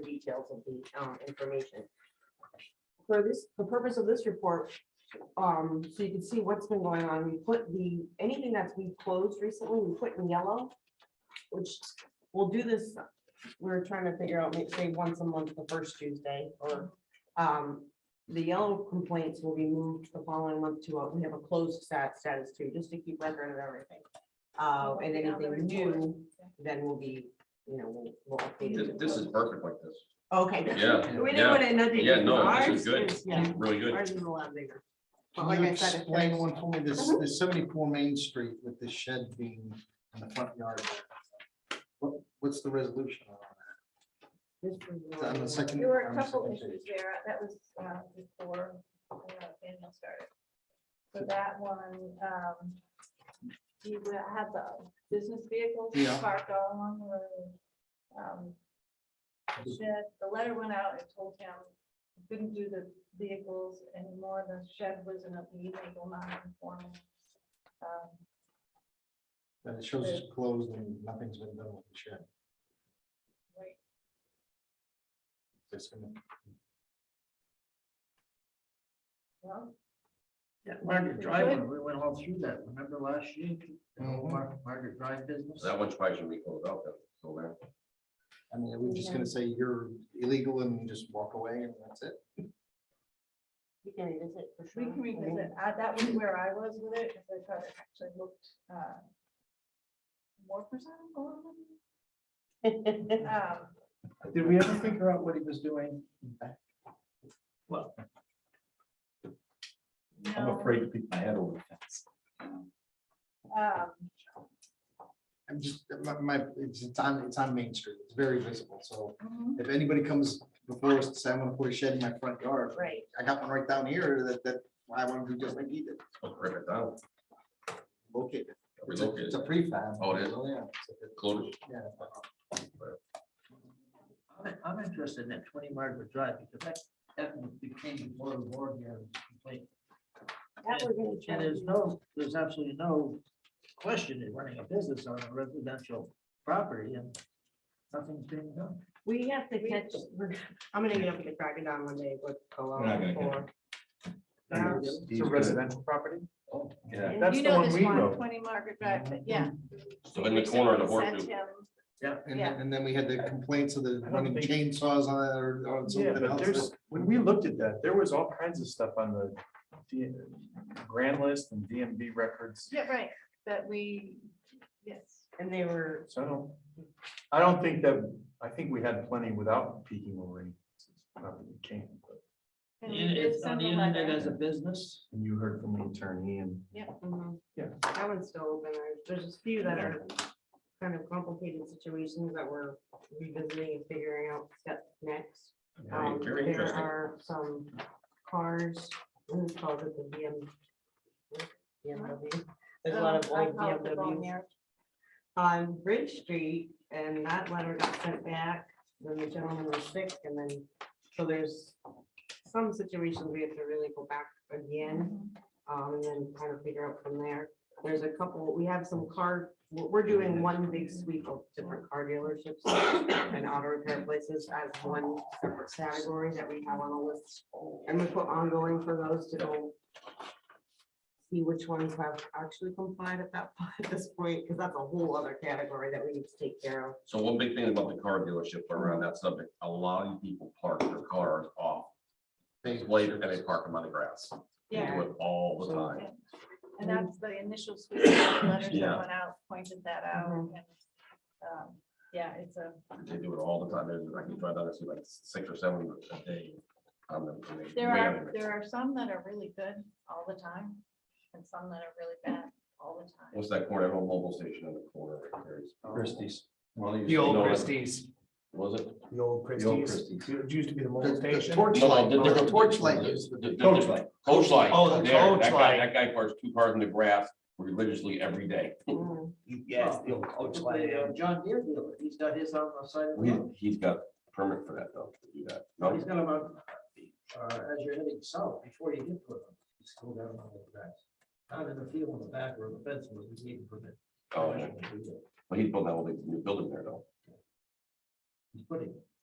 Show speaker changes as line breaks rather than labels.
details of the um, information. For this, the purpose of this report, um, so you can see what's been going on, we put the, anything that's been closed recently, we put in yellow, which we'll do this, we're trying to figure out, maybe say once a month, the first Tuesday, or um, the yellow complaints will be moved the following month to, a- we have a closed stat status too, just to keep record of everything. Uh, and anything new, then will be, you know, we'll, we'll update
This,
it.
this is perfect like this.
Okay.
Yeah,
We
yeah.
didn't want to nudge it.
Yeah, no, this is
Ours
good.
Yeah,
Really good.
ours is a lot bigger. But
Can
like
you
I said, it
explain
fits.
one for me, this,
Mhm.
this seventy-four Main Street with the shed being in the front yard? there. What, what's the resolution on that?
This
Is that on the
was-
second?
There were
on
a
the
couple
second
issues
page?
there, that was uh, before uh, Daniel started. So that one, um, you will have the business vehicles
Yeah.
parked all along the road. Um, Shed, the letter went out and told him, he couldn't do the vehicles anymore, the shed was in a legal non-conforming. um,
And it shows it's closed and nothing's been done with the shed.
right.
It's gonna-
Well,
Yeah, Margaret Drive, when we went all through that, remember last year, the
Mm-hmm.
whole Mar- Margaret Drive business?
That one's probably should be closed out then. So there.
I mean, we're just gonna say you're illegal and just walk away and that's it.
We can revisit for sure.
We can revisit, I- that was where I was with it, because I thought it actually looked uh, more presentable. Um,
Did we ever figure out what he was doing?
I'm
no,
afraid to peek my head over the fence.
um,
I'm just, my, my, it's it's on, it's on Main Street, it's very visible, so
mhm,
if anybody comes before us to say, I wanna put a shed in my front yard,
Right,
I got one right down here that, that I wanna do just like he did,
Rip it down.
locate it. It's a-
Relocate
It's
it.
a prefab.
Oh, it is?
Yeah.
Close it.
Yeah.
I'm- I'm interested in that twenty Margaret Drive, because that, that became more and more here. complaint.
That we're gonna
And
check.
there's no, there's absolutely no question in running a business on a residential property, and nothing's being done.
We have to catch, we're- I'm gonna get up with the crack of dawn one day, but.
We're not gonna get it.
Yeah.
He's good.
property?
Oh.
Yeah.
and
That's
you
the
know
one
this
we
one,
wrote.
Twenty Margaret Drive, but yeah.
So in the corner of the
Someone sent
horseshoe.
him-
And
Yeah.
then, and then we had the complaints of the
don't
running
think-
chainsaws on it or, or
Yeah,
something
but
else.
there's,
that-
when we looked at that, there was all kinds of stuff on the D- grand list and DMV records.
Yeah, right, that we, yes,
And they were,
So I don't, I don't think that, I think we had plenty without peeking over. Not that we can, but,
and we did
It's on
send
the
a
internet as
letter.
a business.
and you heard from the attorney and.
mhm.
Yeah.
that one's still open. There's- There's a few that are kind of complicated situations that we're revisiting and figuring out step next. Um,
Very- Very
There
interesting.
are some cars, who's called it the BM? BMW? There's a lot of
Um, I
old
call it the bone
BMWs.
marrow.
on Bridge Street, and that letter got sent back, when the gentleman was sick, and then, so there's some situations we have to really go back again, um, and then kind of figure out from there. There's a couple, we have some car, we're, we're doing one big sweep of different car dealerships and auto repair places as one separate category that we have on the list. And we put ongoing for those to go see which ones have actually complied at that, point- at this point, because that's a whole other category that we need to take care of.
So one big thing about the car dealership around that subject, a lot of people park their cars off later and they park them on the grass. They
Yeah.
do it all the time.
And that's the initial sweep of the letters that
Yeah.
went out, pointed that out.
Mhm.
and, um, Yeah, it's a,
They do it all the time. There's, I can drive down and see like six or seven a day. on them, and they-
there
they
are,
have it.
there are some that are really good all the time and some that are really bad all the time.
What's that corner, that old mobile station in the corner? right there? It's-
Christie's. Well, you
The old
know it.
Christie's. Was it?
The old
The old Christie's.
It used to be the
The-
mobile
The
station.
torch light,
No, no,
the torch light. is-
Coach light. Coach light.
Oh, the
There,
coach
that guy-
light.
That guy parks two cars in the grass religiously every day.
Yes, the old coach.
um,
John Deere dealer, he's got his on the side of the
We,
road.
he's got permit for that though, to do that.
Well,
No,
He's got about, uh, as you're heading south, before you get to it, he's still down on the grass. Out in the field on the back where the fence was, he's needing permit.
Oh, yeah. but he's building that whole big new building there though.
He's putting, it.